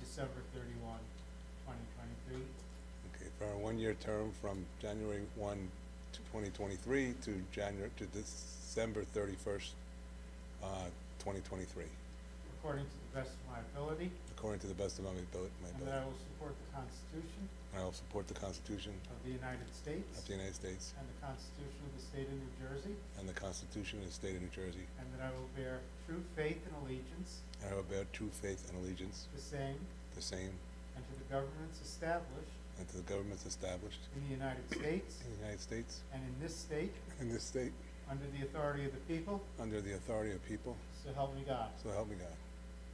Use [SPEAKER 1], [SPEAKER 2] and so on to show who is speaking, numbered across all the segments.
[SPEAKER 1] December thirty-one, twenty twenty-three.
[SPEAKER 2] Okay, for a one-year term from January 1, to 2023 to January, to December 31st, uh, 2023,
[SPEAKER 1] According to the best of my ability.
[SPEAKER 2] according to the best of my abil- my
[SPEAKER 1] And
[SPEAKER 2] ability.
[SPEAKER 1] that I will support the Constitution
[SPEAKER 2] And I will support the Constitution
[SPEAKER 1] of the United States.
[SPEAKER 2] of the United States
[SPEAKER 1] And the Constitution of the State of New Jersey.
[SPEAKER 2] and the Constitution of the State of New Jersey,
[SPEAKER 1] And that I will bear true faith and allegiance
[SPEAKER 2] and I will bear true faith and allegiance,
[SPEAKER 1] to the same
[SPEAKER 2] the same,
[SPEAKER 1] and to the governments established
[SPEAKER 2] and to the governments established
[SPEAKER 1] in the United States
[SPEAKER 2] in the United States
[SPEAKER 1] and in this state,
[SPEAKER 2] and in this state,
[SPEAKER 1] under the authority of the people,
[SPEAKER 2] under the authority of people,
[SPEAKER 1] so help me God.
[SPEAKER 2] so help me God.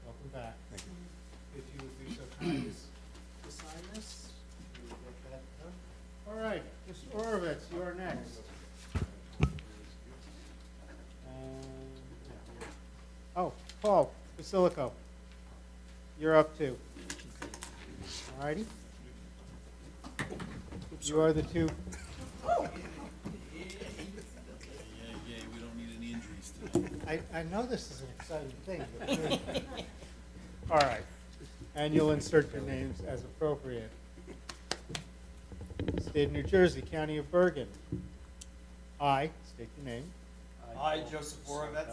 [SPEAKER 1] Welcome back.
[SPEAKER 2] Thank you.
[SPEAKER 1] If you would be so kind as to sign this, we will get that done. All right, Mr. Orovitz, you are next. And- Um, Oh, Paul Basilico, you're up too. All righty? You are the two,
[SPEAKER 3] Yeah, yeah, we don't need any injuries tonight.
[SPEAKER 1] I, I know this is an exciting thing, but. All right, and you'll insert your names as appropriate. State of New Jersey, County of Bergen. I, state your name,
[SPEAKER 4] I, Joseph Borovets,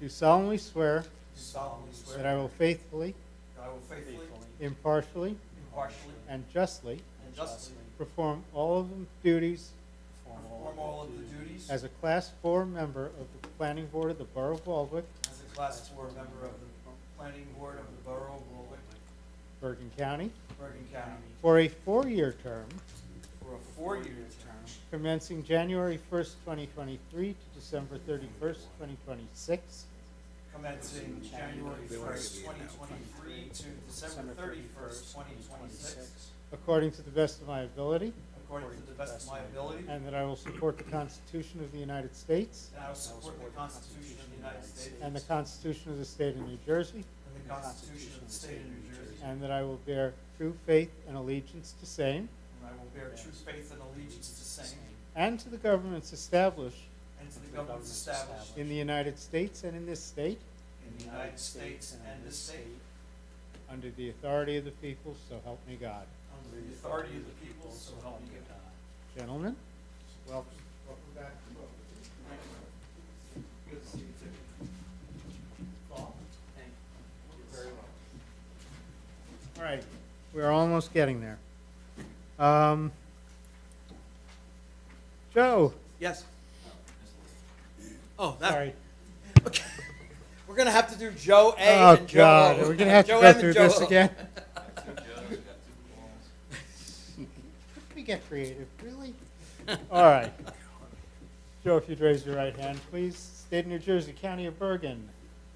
[SPEAKER 1] do solemnly swear
[SPEAKER 4] solemnly
[SPEAKER 1] that
[SPEAKER 4] swear
[SPEAKER 1] I will faithfully,
[SPEAKER 4] that I will faithfully,
[SPEAKER 1] impartially,
[SPEAKER 4] impartially,
[SPEAKER 1] and justly
[SPEAKER 4] and justly
[SPEAKER 1] perform all of the duties
[SPEAKER 4] perform all of the duties
[SPEAKER 1] as a Class Four member of the Planning Board of the Borough of Baldwick,
[SPEAKER 4] as a Class 4 member of the Planning Board of the Borough of Warwick,
[SPEAKER 1] Bergen County,
[SPEAKER 4] Bergen County,
[SPEAKER 1] for a four-year term
[SPEAKER 4] for a four-year term
[SPEAKER 1] commencing January first, twenty twenty-three to December thirty-first, twenty twenty-six,
[SPEAKER 4] commencing January 1st, 2023 to December 31st, 2026,
[SPEAKER 1] according to the best of my ability,
[SPEAKER 4] according to the best of my ability, and
[SPEAKER 1] and that I will support the Constitution of the United States
[SPEAKER 4] I will support the Constitution of the United States
[SPEAKER 1] and the Constitution of the State of New Jersey,
[SPEAKER 4] and the Constitution of the State of New Jersey,
[SPEAKER 1] and that I will bear true faith and allegiance to same
[SPEAKER 4] and I will bear true faith and allegiance to the same
[SPEAKER 1] and to the governments established
[SPEAKER 4] and to the governments established
[SPEAKER 1] in the United States and in this state,
[SPEAKER 4] in the United States and this state,
[SPEAKER 1] under the authority of the people, so help me God.
[SPEAKER 4] under the authority of the people, so help me God.
[SPEAKER 1] Gentlemen, welcome. Welcome back.
[SPEAKER 4] Good to see you too. Paul? Thank you. Very well.
[SPEAKER 1] All right, we're almost getting there. Um, Joe,
[SPEAKER 4] Yes. Oh, that,
[SPEAKER 1] sorry.
[SPEAKER 4] we're gonna have to do Joe A
[SPEAKER 1] Oh,
[SPEAKER 4] and Joe O.
[SPEAKER 1] God, we're gonna have to
[SPEAKER 4] Joe
[SPEAKER 1] go
[SPEAKER 4] M and
[SPEAKER 1] through
[SPEAKER 4] Joe
[SPEAKER 1] this
[SPEAKER 4] O.
[SPEAKER 1] again. We get creative, really? All right. Joe, if you'd raise your right hand, please. State of New Jersey, County of Bergen.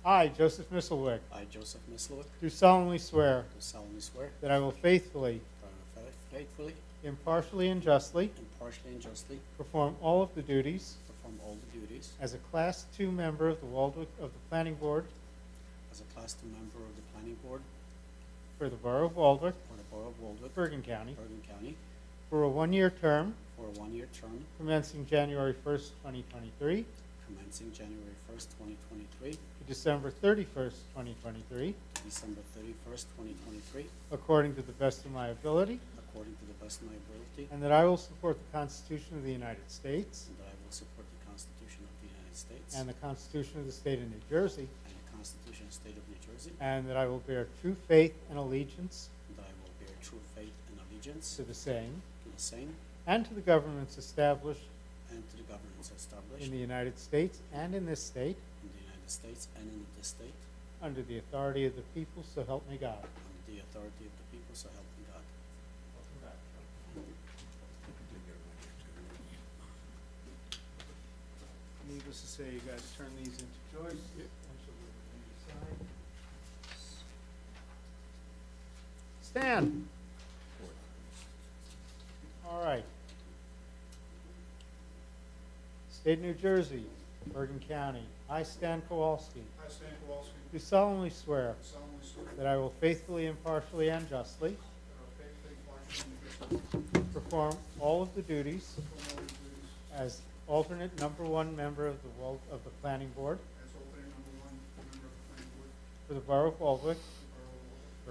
[SPEAKER 1] I, Joseph Misselwick,
[SPEAKER 5] I, Joseph Mislowick,
[SPEAKER 1] do solemnly swear
[SPEAKER 5] do solemnly swear
[SPEAKER 1] that I will faithfully,
[SPEAKER 5] that I will uh, faithfully,
[SPEAKER 1] impartially, and justly
[SPEAKER 5] impartially, and justly
[SPEAKER 1] perform all of the duties
[SPEAKER 5] perform all the duties
[SPEAKER 1] as a Class Two member of the Waldwick, of the Planning Board
[SPEAKER 5] as a Class 2 member of the Planning Board
[SPEAKER 1] for the Borough of Waldwick,
[SPEAKER 5] for the Borough of Waldwick,
[SPEAKER 1] Bergen County,
[SPEAKER 5] Bergen County,
[SPEAKER 1] for a one-year term
[SPEAKER 5] for a one-year term
[SPEAKER 1] commencing January 1st, 2023
[SPEAKER 5] commencing January 1st, 2023,
[SPEAKER 1] to December 31st, 2023,
[SPEAKER 5] to December 31st, 2023,
[SPEAKER 1] according to the best of my ability,
[SPEAKER 5] according to the best of my ability,
[SPEAKER 1] and that I will support the Constitution of the United States
[SPEAKER 5] and that I will support the Constitution of the United States
[SPEAKER 1] and the Constitution of the State of New Jersey,
[SPEAKER 5] and the Constitution of the State of New Jersey,
[SPEAKER 1] and that I will bear true faith and allegiance
[SPEAKER 5] and that I will bear true faith and allegiance
[SPEAKER 1] to the same
[SPEAKER 5] to the same
[SPEAKER 1] and to the governments established
[SPEAKER 5] and to the governments established
[SPEAKER 1] in the United States and in this state,
[SPEAKER 5] in the United States and in this state,
[SPEAKER 1] under the authority of the people, so help me God.
[SPEAKER 5] Under the authority of the people, so help me God.
[SPEAKER 1] Needless to say, you guys turn these into Joyce, and she'll give them to you to sign. Stan? All right. State of New Jersey, Bergen County, I, Stan Kowalski,
[SPEAKER 6] I, Stan Kowalski,
[SPEAKER 1] do solemnly swear
[SPEAKER 6] do solemnly swear that
[SPEAKER 1] that I will faithfully, impartially, and justly
[SPEAKER 6] I will faithfully, impartially, and justly
[SPEAKER 1] perform all of the duties
[SPEAKER 6] perform all the duties
[SPEAKER 1] as alternate number one member of the, Wal- of the Planning Board
[SPEAKER 6] as alternate number one member of the planning board
[SPEAKER 1] for the Borough of Waldwick
[SPEAKER 6] for